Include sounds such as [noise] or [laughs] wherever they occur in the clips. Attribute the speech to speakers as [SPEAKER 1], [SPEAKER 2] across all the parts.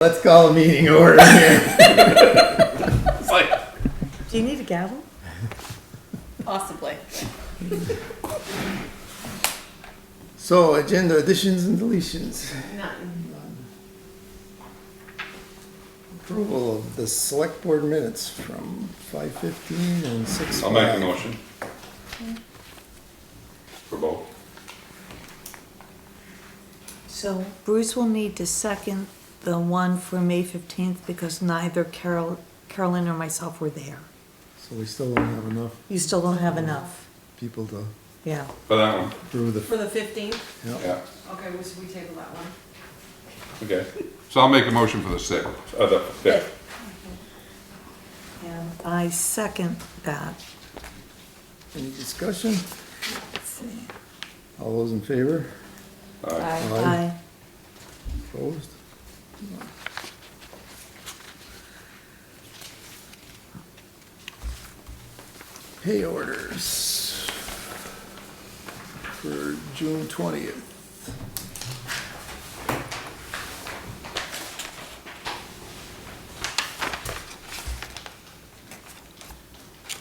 [SPEAKER 1] Let's call a meeting [laughs] order here.
[SPEAKER 2] It's like,
[SPEAKER 3] Do you need a gavel?
[SPEAKER 4] Possibly.
[SPEAKER 1] So agenda additions and deletions.
[SPEAKER 4] None.
[SPEAKER 1] Approval of the select board minutes from five fifteen and six
[SPEAKER 2] I'll
[SPEAKER 1] five.
[SPEAKER 2] make the motion. For both.
[SPEAKER 3] So Bruce will need to second the one for May 15th because neither Carol, Carolyn or myself were there.
[SPEAKER 1] So we still don't have enough
[SPEAKER 3] You still don't have enough.
[SPEAKER 1] people to
[SPEAKER 3] Yeah.
[SPEAKER 2] For that one,
[SPEAKER 1] approve the,
[SPEAKER 4] For the fifteenth?
[SPEAKER 1] yeah,
[SPEAKER 2] yeah,
[SPEAKER 4] Okay, we, we table that one.
[SPEAKER 2] okay. So I'll make a motion for the sixth, uh, the fifth.
[SPEAKER 3] And I second that.
[SPEAKER 1] any discussion? All those in favor?
[SPEAKER 2] Aye.
[SPEAKER 3] Aye.
[SPEAKER 1] Opposed? Pay orders for June twentieth.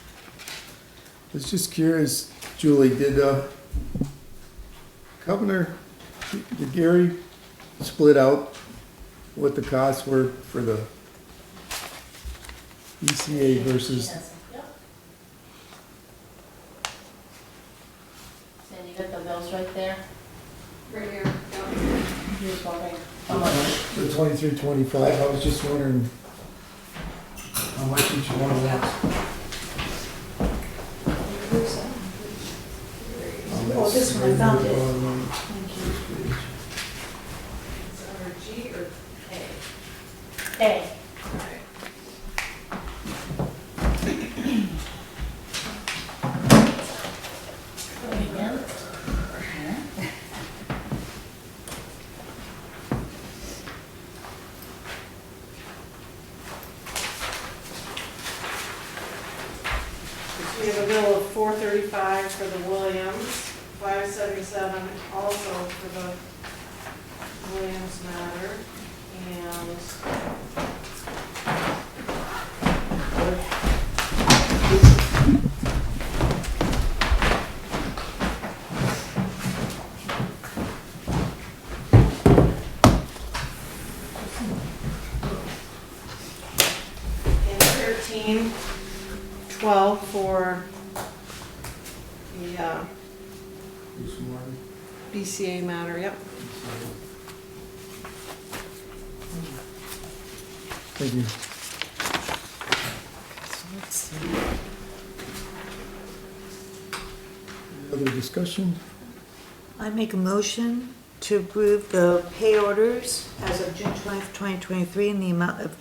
[SPEAKER 1] I was just curious, Julie, did, uh, Governor, did Gary split out what the costs were for the ECA versus,
[SPEAKER 5] Yep. And you got the bills right there?
[SPEAKER 4] Right here, yeah.
[SPEAKER 5] You're just wondering how much?
[SPEAKER 1] the twenty-three, twenty-five? I was just wondering how much each one was.
[SPEAKER 3] Oh, this one, I found it.
[SPEAKER 4] It's under G or K?
[SPEAKER 5] Hey,
[SPEAKER 6] We have a bill of four thirty-five for the Williams, five seventy-seven also for the Williams matter, and and thirteen 12 for the uh, BCA matter, yep.
[SPEAKER 1] Thank you.
[SPEAKER 3] So let's see.
[SPEAKER 1] Other discussion?
[SPEAKER 3] I make a motion to approve the pay orders as of June 20th, 2023 in the amount of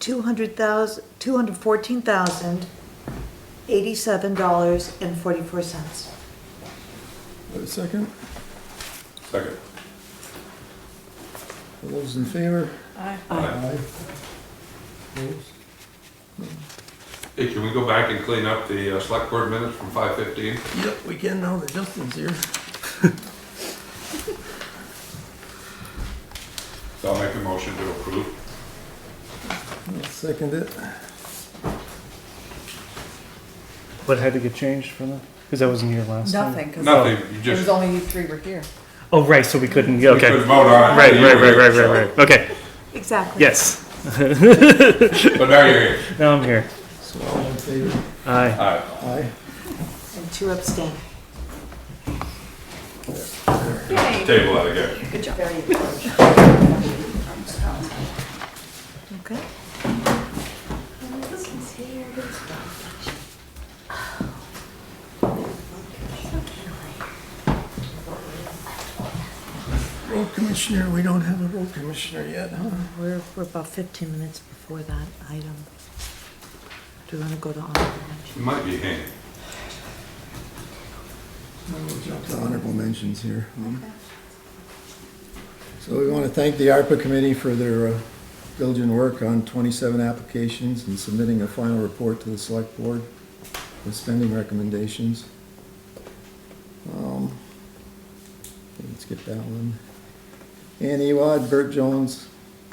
[SPEAKER 3] 200,000, $214,087.44.
[SPEAKER 1] Wait a second.
[SPEAKER 2] Second.
[SPEAKER 1] All those in favor?
[SPEAKER 2] Aye.
[SPEAKER 1] Opposed?
[SPEAKER 2] Hey, can we go back and clean up the uh, select board minutes from five fifteen?
[SPEAKER 1] Yep, we can now that Justin's here.
[SPEAKER 2] So I'll make a motion to approve.
[SPEAKER 1] I'll second it.
[SPEAKER 7] What had to get changed from that? Because I wasn't here last time.
[SPEAKER 4] Nothing, because
[SPEAKER 2] Nothing, you
[SPEAKER 4] it was
[SPEAKER 2] just,
[SPEAKER 4] only you three were here.
[SPEAKER 7] Oh, right, so we couldn't, yeah,
[SPEAKER 2] we
[SPEAKER 7] okay.
[SPEAKER 2] could
[SPEAKER 7] Right,
[SPEAKER 2] vote on it.
[SPEAKER 7] right, right, right, right, right. Okay,
[SPEAKER 3] Exactly.
[SPEAKER 7] yes.
[SPEAKER 2] But now you're here.
[SPEAKER 7] Now I'm here.
[SPEAKER 1] So all in favor?
[SPEAKER 7] Aye.
[SPEAKER 2] Aye.
[SPEAKER 1] Aye.
[SPEAKER 3] And two abstain.
[SPEAKER 2] Table that again.
[SPEAKER 3] Okay.
[SPEAKER 1] Road commissioner, we don't have a road commissioner yet, huh?
[SPEAKER 3] We're, we're about 15 minutes before that item. Do you want to go to honorable mention?
[SPEAKER 2] It might be hanging.
[SPEAKER 1] We'll jump to honorable mentions here. um. So we want to thank the ARPA committee for their uh, diligent work on 27 applications and submitting a final report to the select board with spending recommendations. Um, Let's get that one. Ann Ewad, Bert Jones,